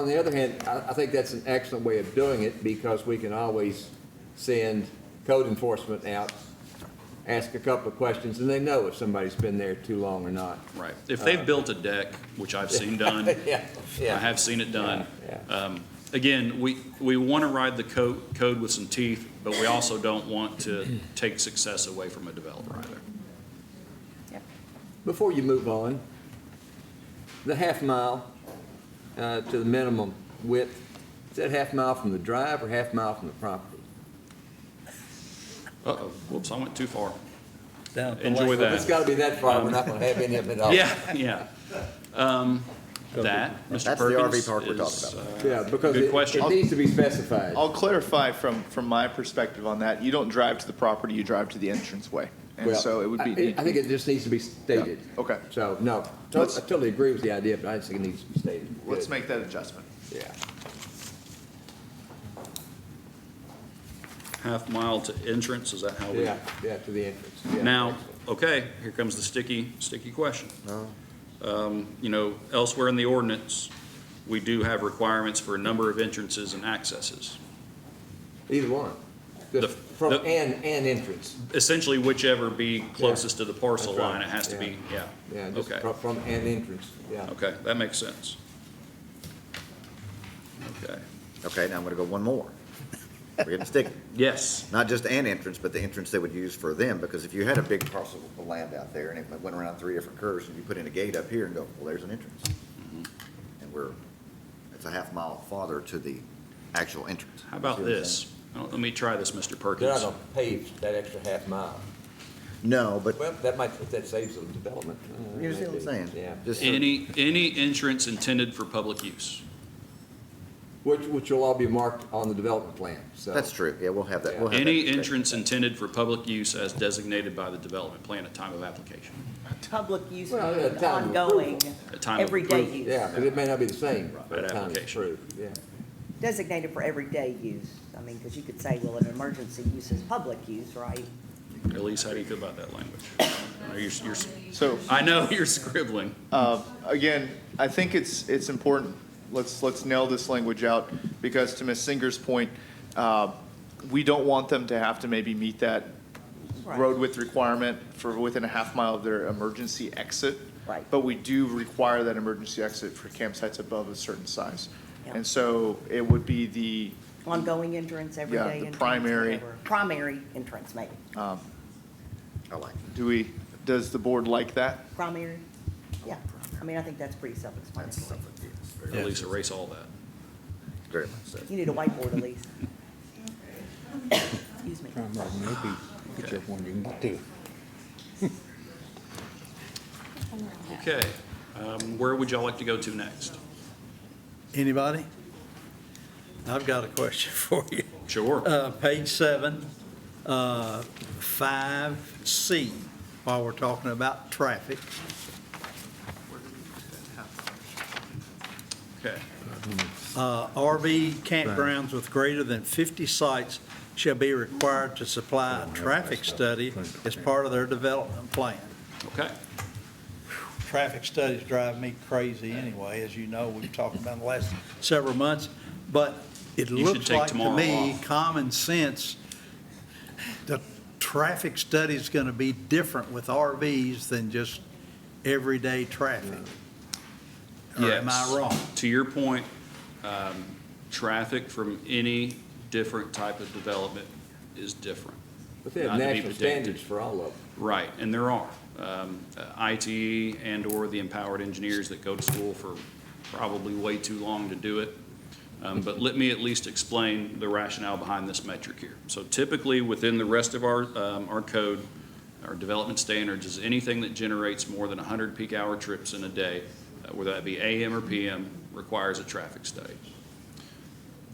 on the other hand, I, I think that's an excellent way of doing it because we can always send code enforcement out, ask a couple of questions, and they know if somebody's been there too long or not. Right. If they've built a deck, which I've seen done, Yeah, I yeah. have seen it done. Yeah, Um, Again, we, we want to ride the code, code with some teeth, but we also don't want to take success away from a developer either. Yep. Before you move on, the half mile uh, to the minimum width, is that half mile from the drive or half mile from the property? Uh-oh, Oh, whoops, I went too far. Down at the Enjoy lake. If it's got to be that far, we're not going to have any of it at all. Yeah, yeah. Um, That, Mr. That's the RV Perkins, park we're talking is, about. uh, Yeah, because Good it- question. it needs to be specified. I'll clarify from, from my perspective on that. You don't drive to the property, you drive to the entranceway. And Well, so it would I- be. I think it just needs to be stated. Yeah, okay. So, no, to- I Let's- totally agree with the idea, but I just think it needs to be stated. Let's Good. make that adjustment. Yeah. half mile to entrance, is that how we? Yeah, yeah, to the entrance. yeah. Oh, Now, okay, here comes the sticky, sticky question. Um, You know, elsewhere in the ordinance, we do have requirements for a number of entrances and accesses. Either one. The- Just From, the- and, and entrance, Essentially whichever be closest to the parcel That's right. line, it has to be, yeah. yeah, just Okay, from, from and entrance, yeah. okay, that makes sense. Okay, Okay, now I'm gonna go one more. We're getting sticky. yes, Not just an entrance, but the entrance they would use for them, because if you had a big parcel of land out there and it went around three different curves, and you put in a gate up here and go, well, there's an entrance. Mm-hmm. And we're, it's a half mile farther to the actual entrance. how about See what I'm this? Oh, Let me try this, Mr. They're not Perkins. gonna pave that extra half mile. saying? No, but, Well, that might, that saves some development. Uh, you see what I'm maybe. saying? Yeah. Just so- Any, any entrance intended for public use. Which, which will all be marked on the development plan, so. That's true, yeah, we'll have that, we'll have that. Any discussion. entrance intended for public use as designated by the development plan at time of application, Public use Well, yeah, and time of ongoing, at time of everyday approval. use. Yeah, because it may not be the same by the Right, time it's application. approved, yeah. Designated for everyday use. I mean, because you could say, well, an emergency use is public use, right? Elise, how do you feel about that language? Are you- you're- So I know you're scribbling. Uh, Again, I think it's, it's important, let's, let's nail this language out, because to Ms. Singer's point, uh, we don't want them to have to maybe meet that Right. road width requirement for within a half mile of their emergency exit. Right. But we do require that emergency exit for campsites above a certain size. Yeah. And so it would be the, Ongoing entrance, the everyday entrance, primary. whatever. Primary entrance, maybe. I like it. do we, does the board like that? Primary, yeah. I mean, I think that's pretty That's self-explanatory. something, yes, very, Elise, erase all that. very much so. You need a whiteboard, Elise. Excuse me. I'm like, maybe get you one you can get to. Okay, um, where would y'all like to go to next? Anybody? I've got a question for you. Sure. Uh, Page seven, uh, five C, while we're talking about traffic. Okay, Uh, RV campgrounds with greater than 50 sites shall be required to supply a traffic study as part of their development plan. okay. Traffic studies drive me crazy anyway, as you know, we've talked about in the last several months, but it You should looks take like to tomorrow me, off. common sense, the traffic study's going to be different with RVs than just everyday traffic. Or am I Yes. wrong? To your point, um, traffic from any different type of development is different. But they have Not to be national protected. standards for all of them. Right, and there are. Um, uh, ITE and/or the empowered engineers that go to school for probably way too long to do it. Um, But let me at least explain the rationale behind this metric here. So typically, within the rest of our, um, our code, our development standards is anything that generates more than 100 peak hour trips in a day, uh, whether that be AM or PM, requires a traffic study.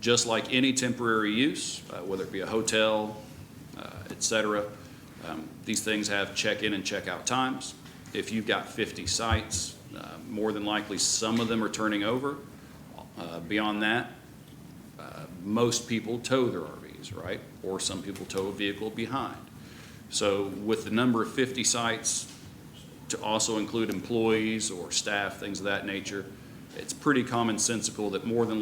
Just like any temporary use, uh, whether it be a hotel, uh, et cetera, um, These things have check-in and check-out times. If you've got 50 sites, uh, more than likely, some of them are turning over. Uh, Beyond that, uh, most people tow their RVs, right? Or some people tow a vehicle behind. So with the number of 50 sites, to also include employees or staff, things of that nature, it's pretty commonsensical that more than